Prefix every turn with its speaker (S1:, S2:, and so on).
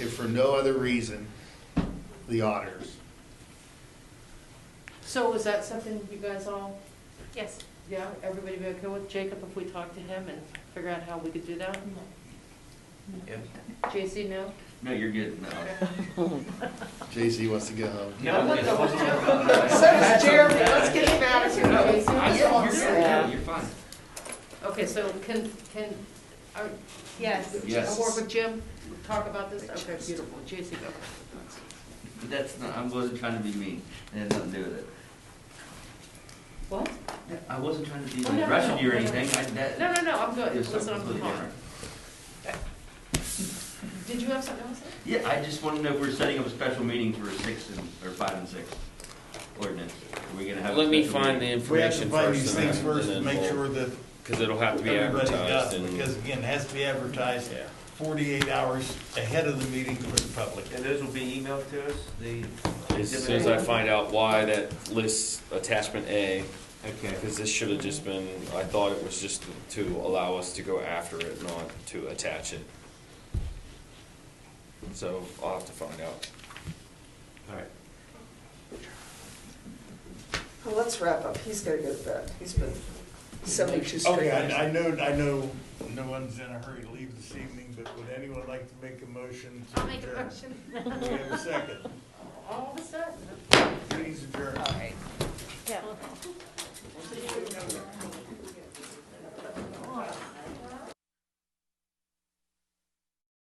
S1: for no other reason, the auditors.
S2: So is that something you guys all,
S3: Yes.
S2: yeah, everybody be okay with? Jacob, if we talk to him and figure out how we could do that?
S4: Yeah.
S2: JC, no?
S4: No, you're good, no.
S1: JC wants to go home.
S4: No,
S2: what the-
S4: what's wrong?
S5: does Jeremy, let's get him out of here.
S4: I-
S2: JC?
S4: You're good,
S5: Yeah.
S4: no, you're fine.
S2: Okay, so can, can, are,
S3: Yes.
S4: Yes.
S2: I'll work with Jim, talk about this? Okay, beautiful. JC, go.
S4: That's not, I wasn't trying to be mean, it had nothing to do with it.
S2: What?
S4: I wasn't trying to be
S2: Oh, no, no,
S4: rushing you or
S2: no.
S4: anything, I, that.
S2: No, no, no, I'm good.
S4: it was
S2: Listen,
S4: something
S2: I'm
S4: completely
S2: fine.
S4: different.
S2: Did you have something else?
S4: Yeah, I just want to know if we're setting up a special meeting for six and, or five and six ordinance. Are we gonna have? a
S6: Let me
S4: special
S6: find the
S4: meeting?
S1: We have
S6: information
S1: to
S6: first.
S1: find these things first and make sure that
S6: Because it'll have to be
S1: everybody
S6: advertised
S1: does,
S6: and.
S1: because again, it has to be advertised
S6: Yeah.
S1: forty-eight hours ahead of the meeting for the public.
S7: And those will be emailed to us, the.
S6: As soon as I find out why that lists attachment A,
S7: Okay.
S6: because this should have just been, I thought it was just to allow us to go after it, not to attach it. So I'll have to find out.
S7: All right.
S5: Well, let's wrap up. He's gotta go to bed. He's been seventy-two straight.
S1: Okay, I, I know, I know no one's in a hurry to leave this evening, but would anyone like to make a motion to
S3: I'll make a
S1: adjourn?
S3: motion.
S1: Do we have a second?